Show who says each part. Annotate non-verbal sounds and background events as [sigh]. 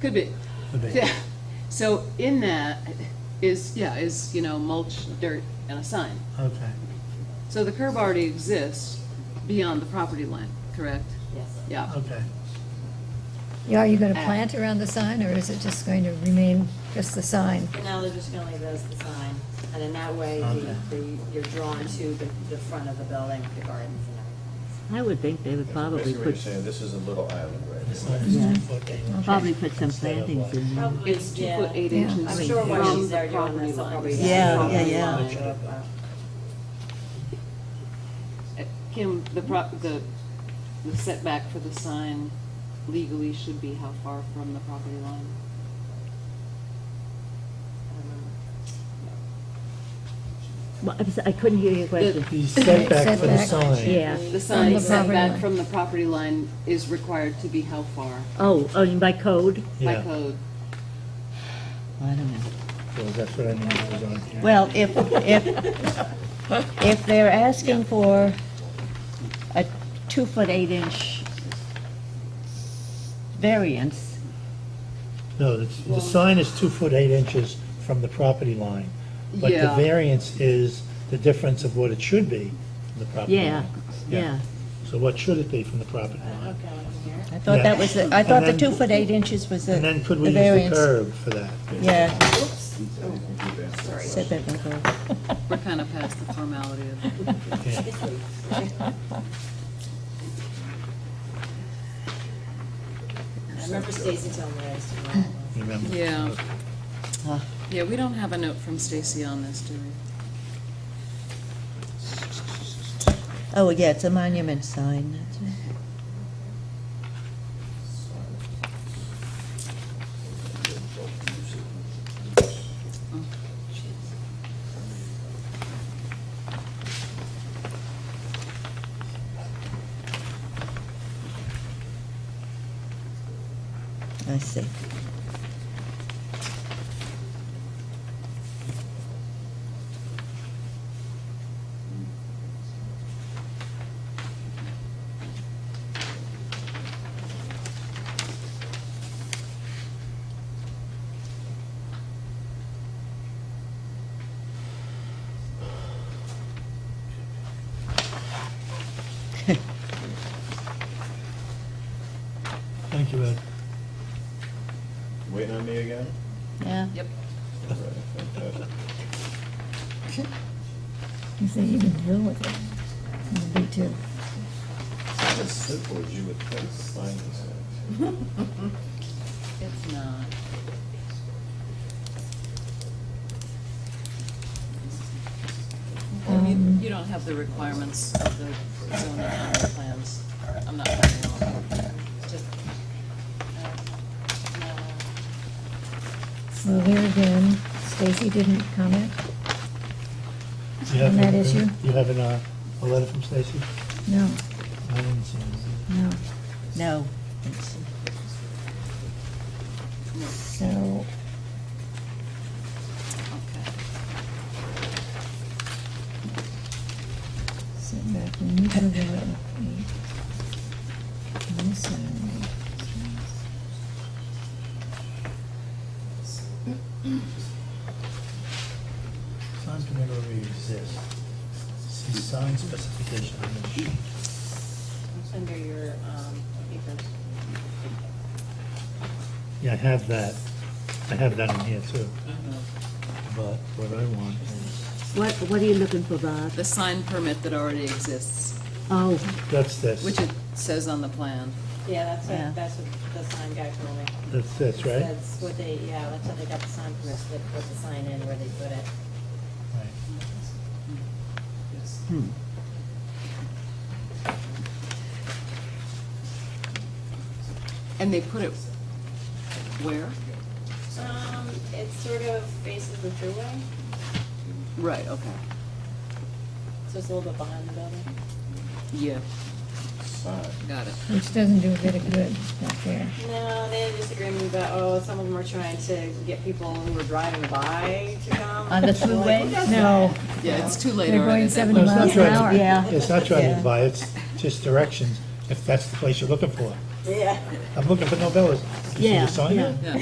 Speaker 1: Could be.
Speaker 2: Could be.
Speaker 1: Yeah. So in that is, yeah, is, you know, mulch, dirt, and a sign.
Speaker 2: Okay,
Speaker 1: So the curb already exists beyond the property line, correct?
Speaker 3: Yes.
Speaker 1: Yeah.
Speaker 2: okay.
Speaker 4: Yeah, Are you going to plant around the sign, or is it just going to remain just the sign?
Speaker 3: But now they're just gonna leave it as the sign, and in that way,
Speaker 2: Okay.
Speaker 3: the, the, you're drawn to the, the front of the building, with the gardens and everything.
Speaker 5: I would think they would probably
Speaker 6: Basically, what
Speaker 5: put,
Speaker 6: you're saying, this is a little island right
Speaker 2: It's
Speaker 6: here.
Speaker 2: not just two foot.
Speaker 5: probably put some plantings in there.
Speaker 3: Probably,
Speaker 1: It's two
Speaker 3: yeah.
Speaker 1: foot eight
Speaker 4: Yeah.
Speaker 1: inches
Speaker 3: I'm sure when
Speaker 1: from
Speaker 3: she's
Speaker 1: the
Speaker 3: there doing
Speaker 1: property
Speaker 3: this, I'll probably.
Speaker 1: line.
Speaker 5: Yeah, yeah, yeah.
Speaker 1: Uh, Kim, the pro, the the setback for the sign legally should be how far from the property line?
Speaker 5: Well, I'm so- I couldn't hear your question.
Speaker 2: The setback for the
Speaker 4: Setback.
Speaker 2: sign.
Speaker 5: Yeah.
Speaker 1: The
Speaker 4: From
Speaker 1: sign
Speaker 4: the property
Speaker 1: setback
Speaker 4: line.
Speaker 1: from the property line is required to be how far
Speaker 5: Oh, oh, by code?
Speaker 1: by
Speaker 2: Yeah,
Speaker 1: code?
Speaker 5: I don't know.
Speaker 2: well, that's what I mean, it was on here.
Speaker 5: Well, if, if, if they're asking for a two-foot, eight-inch variance,
Speaker 2: No, it's- the sign is two foot eight inches from the property line. But the
Speaker 1: Yeah.
Speaker 2: variance is the difference of what it should be from the property
Speaker 5: yeah,
Speaker 2: line.
Speaker 5: yeah.
Speaker 2: So what should it be from the property line?
Speaker 3: Okay,
Speaker 7: I thought that was, the- I thought the
Speaker 2: And
Speaker 7: two
Speaker 2: then-
Speaker 7: foot eight inches was the the
Speaker 2: And then
Speaker 7: variance.
Speaker 2: could we use the curb for that?
Speaker 7: Yeah,
Speaker 3: sorry.
Speaker 7: set that by curb.
Speaker 1: We're kind of past the formality of it.
Speaker 2: Yeah.
Speaker 3: I remember Stacy telling me I used to. know that.
Speaker 2: Remember?
Speaker 1: Yeah.
Speaker 5: Ah.
Speaker 1: Yeah, we don't have a note from Stacy on this, do we?
Speaker 7: Oh, yeah, it's a monument sign, that's right.
Speaker 1: Oh,
Speaker 7: I see.
Speaker 2: Thank you, Ed.
Speaker 6: Waiting on me again?
Speaker 7: Yeah.
Speaker 1: Yep.
Speaker 6: All right, fantastic.
Speaker 4: If they even deal with it, it'd be too.
Speaker 6: It's as simple as you would think, sign this.
Speaker 1: It's not. I mean, you don't have the requirements of the zoning on the plans. I'm not finding them. Just,
Speaker 3: Um, no.
Speaker 1: uh,
Speaker 4: Well, there again, Stacy didn't comment.
Speaker 2: You have
Speaker 4: On that
Speaker 2: a-
Speaker 4: issue?
Speaker 2: You have an, uh, a letter from Stacy?
Speaker 4: No,
Speaker 2: I didn't see it.
Speaker 4: no.
Speaker 7: No.
Speaker 4: So,
Speaker 1: okay.
Speaker 4: sit back and you can do it. And this one,
Speaker 2: Signs can never really exist. See sign specification on the sheet.
Speaker 3: It's under your, um, papers.
Speaker 2: Yeah, I have that. I have that in here too. Uh-huh. But what I want is,
Speaker 5: What, what are you looking for, Bob?
Speaker 1: The sign permit that already exists,
Speaker 5: Oh,
Speaker 2: that's this.
Speaker 1: which it says on the plan.
Speaker 3: Yeah, that's
Speaker 5: Yeah.
Speaker 3: what, that's what the sign guy told me.
Speaker 2: That's this, right?
Speaker 3: That's what they, yeah, that's how they got the sign permit, so they put the sign in where they put it.
Speaker 2: Right.
Speaker 5: hmm.
Speaker 1: And they put it where?
Speaker 3: Um, it sort of faces the thruway,
Speaker 1: Right, okay.
Speaker 3: so it's a little bit behind the building.
Speaker 1: Yeah,
Speaker 6: Sign.
Speaker 1: got it.
Speaker 4: Which doesn't do a bit of good back there.
Speaker 3: No, they had a disagreement about, oh, some of them are trying to get people who were driving by to come.
Speaker 7: On the
Speaker 3: I'm like,
Speaker 7: thruway?
Speaker 3: [laughs] "Who does
Speaker 4: No.
Speaker 3: that?"
Speaker 1: Yeah, it's too late
Speaker 4: They're
Speaker 1: already.
Speaker 4: going
Speaker 1: That
Speaker 4: 70
Speaker 2: No, it's not
Speaker 4: miles an hour.
Speaker 2: driving.
Speaker 5: Uh-huh. Yeah.
Speaker 2: It's not driving
Speaker 7: Yeah.
Speaker 2: by, it's just directions, if that's the place you're looking for.
Speaker 3: Yeah.
Speaker 2: I'm looking for Novellas. You see
Speaker 5: Yeah,
Speaker 2: the sign there?
Speaker 5: yeah.